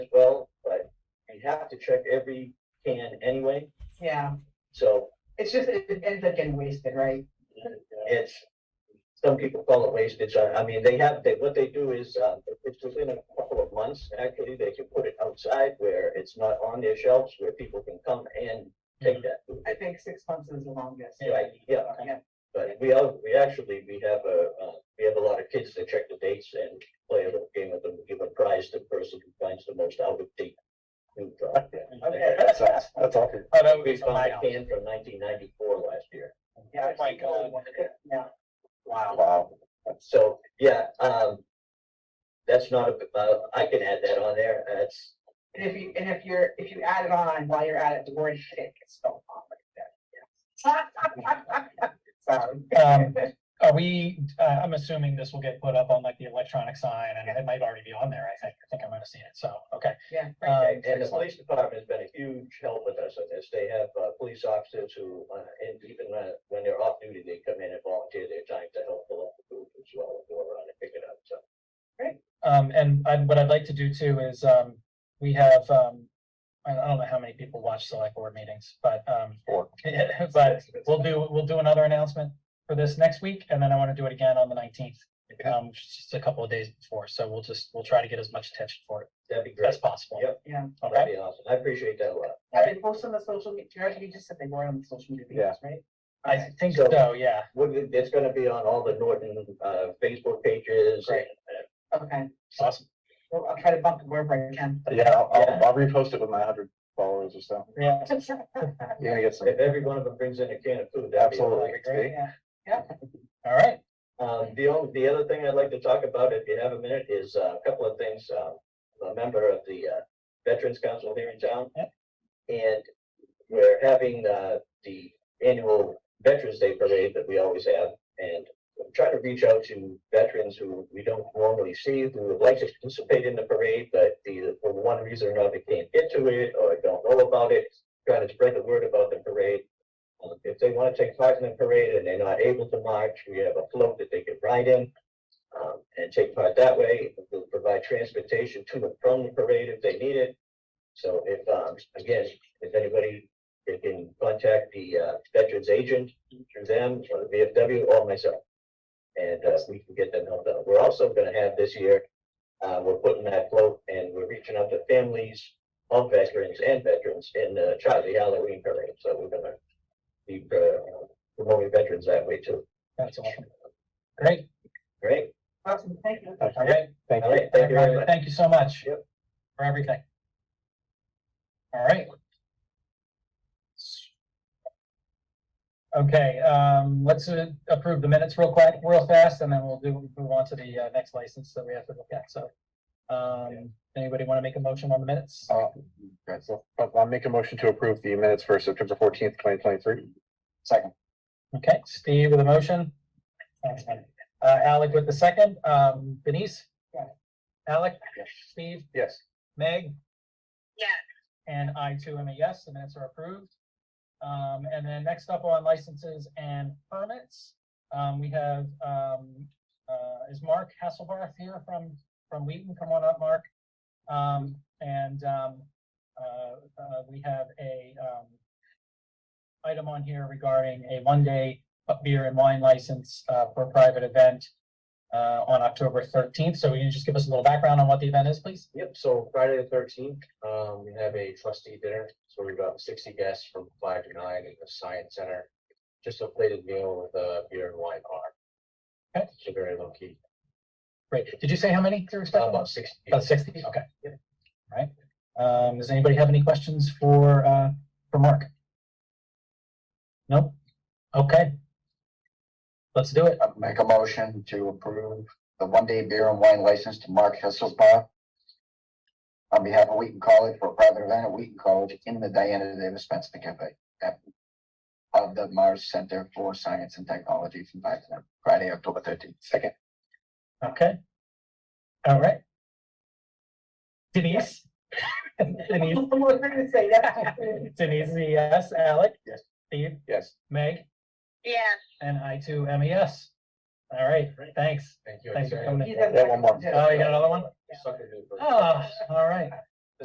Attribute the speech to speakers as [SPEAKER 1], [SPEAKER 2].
[SPEAKER 1] as well, but you have to check every can anyway,
[SPEAKER 2] Yeah,
[SPEAKER 1] so
[SPEAKER 2] it's just, it it ends up getting wasted, right?
[SPEAKER 1] it's, some people call it wastage, I, I mean, they have, they, what they do is, uh, if it's within a couple of months, actually, they can put it outside where it's not on their shelves, where people can come and
[SPEAKER 3] Mm-hmm.
[SPEAKER 1] take that food.
[SPEAKER 2] I think six months is the longest.
[SPEAKER 1] Right, yeah,
[SPEAKER 2] Yeah,
[SPEAKER 1] but we all, we actually, we have a, uh, we have a lot of kids that check the dates and play a little game with them, give a prize to the person who finds the most out of date. food product.
[SPEAKER 3] Okay, that's, that's, that's all. good.
[SPEAKER 4] Oh, that would
[SPEAKER 1] We
[SPEAKER 4] be fun.
[SPEAKER 1] found a can from nineteen ninety-four last year.
[SPEAKER 2] yeah.
[SPEAKER 4] Oh my
[SPEAKER 2] it's really
[SPEAKER 4] God.
[SPEAKER 2] wonderful. Yeah,
[SPEAKER 1] Wow.
[SPEAKER 3] Wow.
[SPEAKER 1] So, yeah, um, that's not a, uh, I can add that on there. That's,
[SPEAKER 2] and if you, and if you're, if you add it on while you're at it, the word shit gets spelled on like that. yeah. Sorry.
[SPEAKER 4] Um, Are we, uh, I'm assuming this will get put up on like the electronic sign and it might already be on there. I think, I think I might have seen it. So, okay.
[SPEAKER 2] Yeah.
[SPEAKER 4] Um,
[SPEAKER 1] and and the police department has been a huge help with us on this. They have, uh, police officers who, uh, and even when, when they're off duty, they come in and volunteer their time to help fill up the food as well, and go around and pick it up, so.
[SPEAKER 4] Um, and I, what I'd like to do too is, um, we have, um, I I don't know how many people watch select board meetings, but, um,
[SPEAKER 3] Four.
[SPEAKER 4] but we'll do, we'll do another announcement for this next week and then I want to do it again on the nineteenth. Um, which is just a couple of days before. So we'll just, we'll try to get as much attention for it
[SPEAKER 1] That'd be great.
[SPEAKER 4] as possible.
[SPEAKER 1] Yep.
[SPEAKER 2] Yeah,
[SPEAKER 4] Okay.
[SPEAKER 1] That'd be awesome. I appreciate that a lot.
[SPEAKER 2] have they posted on the social media, Jared, you just said they were on the social media pages, right?
[SPEAKER 4] I
[SPEAKER 2] Okay.
[SPEAKER 4] think
[SPEAKER 1] So-
[SPEAKER 4] so, yeah.
[SPEAKER 1] Would, it- it's gonna be on all the Norton, uh, Facebook pages.
[SPEAKER 4] Great.
[SPEAKER 2] Okay,
[SPEAKER 4] Awesome.
[SPEAKER 2] well, I'll try to bump it wherever I can.
[SPEAKER 3] Yeah, I'll,
[SPEAKER 1] Yeah.
[SPEAKER 3] I'll, I'll repost it with my hundred followers or so.
[SPEAKER 4] Yeah.
[SPEAKER 3] You're gonna get some.
[SPEAKER 1] If every one of them brings in a can of food, that'd be.
[SPEAKER 3] Absolutely.
[SPEAKER 1] awesome.
[SPEAKER 3] See?
[SPEAKER 2] Yeah.
[SPEAKER 4] All right.
[SPEAKER 1] Um, the only, the other thing I'd like to talk about, if you have a minute, is uh, a couple of things, um, I'm a member of the, uh, Veterans Council here in town.
[SPEAKER 4] Yep.
[SPEAKER 1] And we're having, uh, the annual Veterans Day Parade that we always have, and I'm trying to reach out to veterans who we don't normally see, who would like to participate in the parade, but either for one reason or another can't get to it, or don't know about it, trying to spread the word about the parade. Um, If they want to take part in the parade and they're not able to march, we have a float that they can ride in um, and take part that way. We'll provide transportation to and from the parade if they need it. So if, um, again, if anybody, they can contact the uh, veterans agent through them or the VFW or myself. And uh, we can get them help out. We're also going to have this year, uh, we're putting that float and we're reaching out to families of veterans and veterans in the Charlie Halloween parade. So we're going to be uh, promoting veterans that way too.
[SPEAKER 4] That's awesome. Great.
[SPEAKER 1] Great.
[SPEAKER 2] Awesome, thank you.
[SPEAKER 4] All right.
[SPEAKER 3] Thank
[SPEAKER 1] All
[SPEAKER 3] you.
[SPEAKER 1] right. Thank you very much.
[SPEAKER 4] Thank you so much.
[SPEAKER 1] Yep.
[SPEAKER 4] For everything. All right. Okay, um, let's uh, approve the minutes real quick, real fast, and then we'll do, move on to the, uh, next license that we have to look at, so. Um, anybody want to make a motion on the minutes?
[SPEAKER 3] Uh, right, so I'll I'll make a motion to approve the minutes for September fourteenth, twenty twenty-three. Second.
[SPEAKER 4] Okay, Steve with a motion. Uh, Alec with the second, um, Denise?
[SPEAKER 2] Yeah.
[SPEAKER 4] Alec?
[SPEAKER 3] Yes.
[SPEAKER 4] Steve?
[SPEAKER 3] Yes.
[SPEAKER 4] Meg?
[SPEAKER 2] Yes.
[SPEAKER 4] And I too am a yes, the minutes are approved. Um, and then next up on licenses and permits, um, we have, um, uh, is Mark Hasselbarth here from, from Wheaton? Come on up, Mark. Um, and, um, uh, uh, we have a, um, item on here regarding a one-day beer and wine license, uh, for a private event, uh, on October thirteenth. So can you just give us a little background on what the event is, please?
[SPEAKER 1] Yep, so Friday the thirteenth, um, we have a trustee dinner, so we've got sixty guests from five to nine at the Science Center. Just a plated meal with a beer and wine bar.
[SPEAKER 4] Okay.
[SPEAKER 1] So very low key,
[SPEAKER 4] Great. Did you say how many you're expecting?
[SPEAKER 1] about Uh, sixty.
[SPEAKER 4] About sixty, okay. All Right. Um, does anybody have any questions for, uh, for Mark? Nope? Okay. Let's do it.
[SPEAKER 5] Uh, Make a motion to approve the one-day beer and wine license to Mark Hessel's Bar on behalf of Wheaton College for a private event at Wheaton College in the Diana Davis Spencer Cafe at- of the Mars Center for Science and Technology from five to nine, Friday, October thirteenth. Second.
[SPEAKER 4] Okay. All right. Denise?
[SPEAKER 2] I
[SPEAKER 4] Denise,
[SPEAKER 2] was gonna say that.
[SPEAKER 4] Denise, is a yes. Alec?
[SPEAKER 3] Yes.
[SPEAKER 4] Steve?
[SPEAKER 3] Yes.
[SPEAKER 4] Meg?
[SPEAKER 6] Yes,
[SPEAKER 4] And I too am a yes. All right, thanks.
[SPEAKER 1] Thank you.
[SPEAKER 4] Thanks for coming in.
[SPEAKER 2] You have-
[SPEAKER 3] Yeah, one more.
[SPEAKER 4] Oh, you got another one?
[SPEAKER 1] Sucker dude.
[SPEAKER 4] Oh, all right.